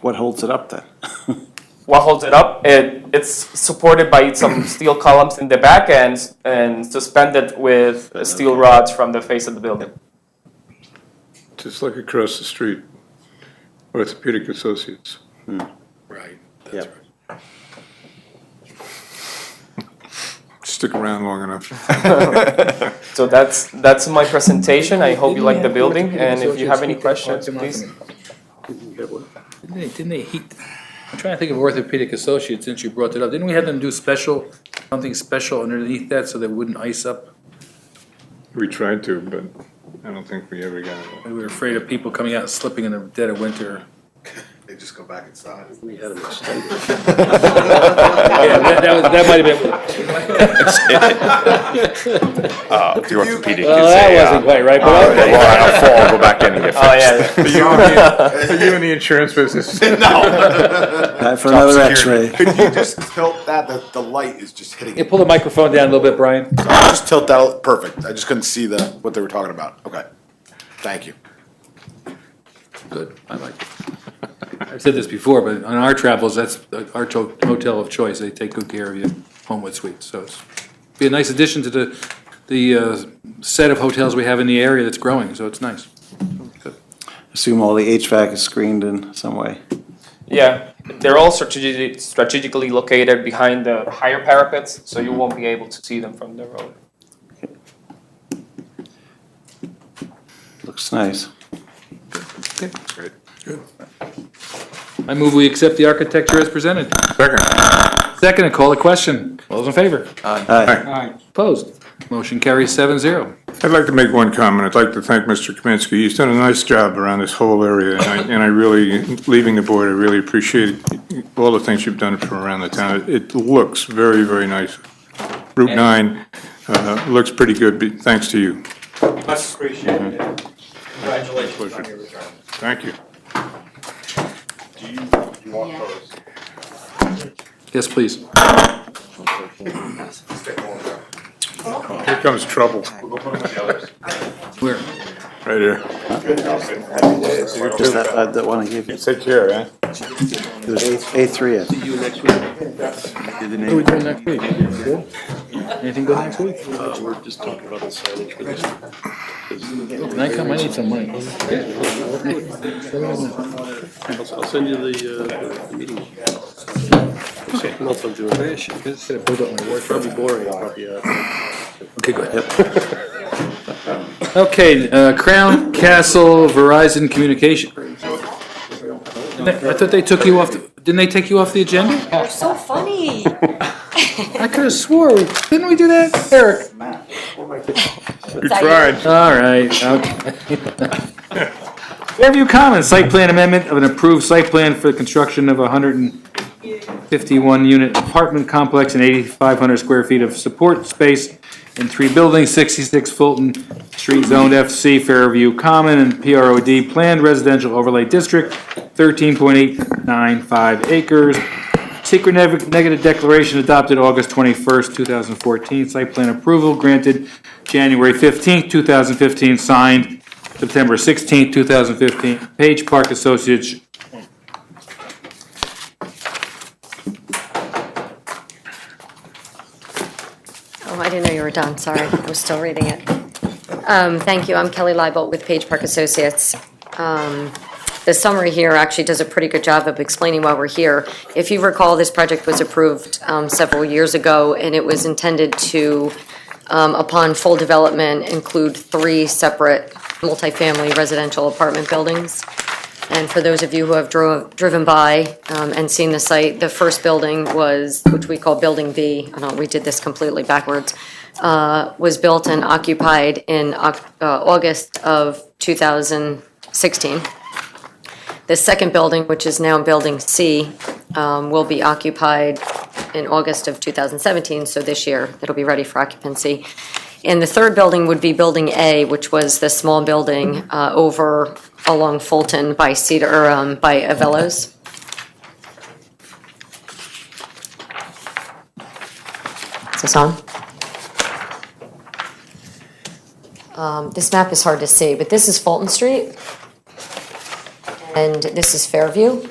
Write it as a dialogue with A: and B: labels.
A: What holds it up then?
B: What holds it up? It, it's supported by some steel columns in the back end and suspended with steel rods from the face of the building.
C: Just like across the street, Orthopedic Associates.
D: Right,
A: Yep.
D: that's right.
C: Stick around long enough.
B: So that's, that's my presentation. I hope you like the building, and if you have any questions, please.
D: Didn't they, didn't they heat, I'm trying to think of Orthopedic Associates, since you brought it up, didn't we have them do special, something special underneath that so they wouldn't ice up?
C: We tried to, but I don't think we ever got it.
D: We were afraid of people coming out and slipping in the dead of winter.
E: They just go back inside.
D: Yeah, that, that was, that might have been,
F: Uh, the orthopedic is
D: well, that
F: a,
D: wasn't
F: uh,
D: quite right, but.
F: the line will fall, go back in and get
B: Oh,
F: fixed.
B: yeah.
C: Are you in the- are you in the insurance business?
A: Time for another
F: security.
A: x-ray.
E: Could you just tilt that, the, the light is just hitting
D: You
E: it.
D: pull the microphone down a little bit, Brian.
E: Just tilt that, perfect, I just couldn't see the, what they were talking about, okay. Thank you.
D: Good, I like it. I've said this before, but on our travels, that's our cho- hotel of choice. They take good care of you, Homewood Suites. So it's, be a nice addition to the, the uh, set of hotels we have in the area that's growing, so it's nice.
A: Assume all the HVAC is screened in some way.
B: Yeah, they're all strategically, strategically located behind the higher parapets, so you won't be able to see them from the road.
A: Looks nice.
D: I move we accept the architecture as presented. Second, I call the question. All those in favor?
A: Hi.
D: Opposed? Motion carries seven zero.
C: I'd like to make one comment. I'd like to thank Mr. Kaminsky. He's done a nice job around this whole area, and I, and I really, leaving the board, I really appreciate all the things you've done from around the town. It looks very, very nice. Route 9 uh, looks pretty good, be- thanks to you. Mm-hmm.
G: Much appreciated. Congratulations on your retirement.
C: Thank you.
G: Do you, you want those?
D: Yes, please.
C: Here comes trouble,
G: We'll go put them with the others.
D: Where?
C: right here.
A: Just that, uh, that one I gave you.
C: Take care, eh?
A: It was A, A3, I think.
D: What are we doing next week? Anything good next week?
H: Uh, We're just talking about the signage for this.
D: Can I come? I need some money.
H: I'll I'll send you the, uh, the meeting. Okay. Month of June.
D: Gotta build up my work.
H: Probably boring, probably, uh,
D: Okay, go ahead. Okay, uh, Crown Castle Verizon Communication. I thought they took you off, the- didn't they take you off the agenda?
I: You're so funny.
D: I could have swore, we didn't we do that, Eric?
C: You tried.
D: All right, okay. Fairview Commons, site plan amendment of an approved site plan for the construction of a hundred and fifty-one unit apartment complex and eighty-five hundred square feet of support space in three buildings, sixty-six Fulton Street zoned FC, Fairview Common and PROD Planned Residential Overlay District, thirteen point eight nine five acres. Secret neg- negative declaration adopted August twenty-first, two thousand fourteen, site plan approval granted January fifteenth, two thousand fifteen, signed September sixteenth, two thousand fifteen, Page Park Associates,
I: Oh, I didn't know you were done, sorry, I was still reading it. Um, Thank you, I'm Kelly Leibolt with Page Park Associates. Um, The summary here actually does a pretty good job of explaining why we're here. If you recall, this project was approved um, several years ago, and it was intended to, um, upon full development, include three separate multifamily residential apartment buildings. And for those of you who have drove, driven by um, and seen the site, the first building was, which we call Building B, I know we did this completely backwards, uh, was built and occupied in Oc- uh, August of 2016. The second building, which is now Building C, um, will be occupied in August of 2017, so this year it'll be ready for occupancy. And the third building would be Building A, which was the small building uh, over along Fulton by Cedar, or um, by Avello's. Is this on? Um, This map is hard to see, but this is Fulton Street, and this is Fairview.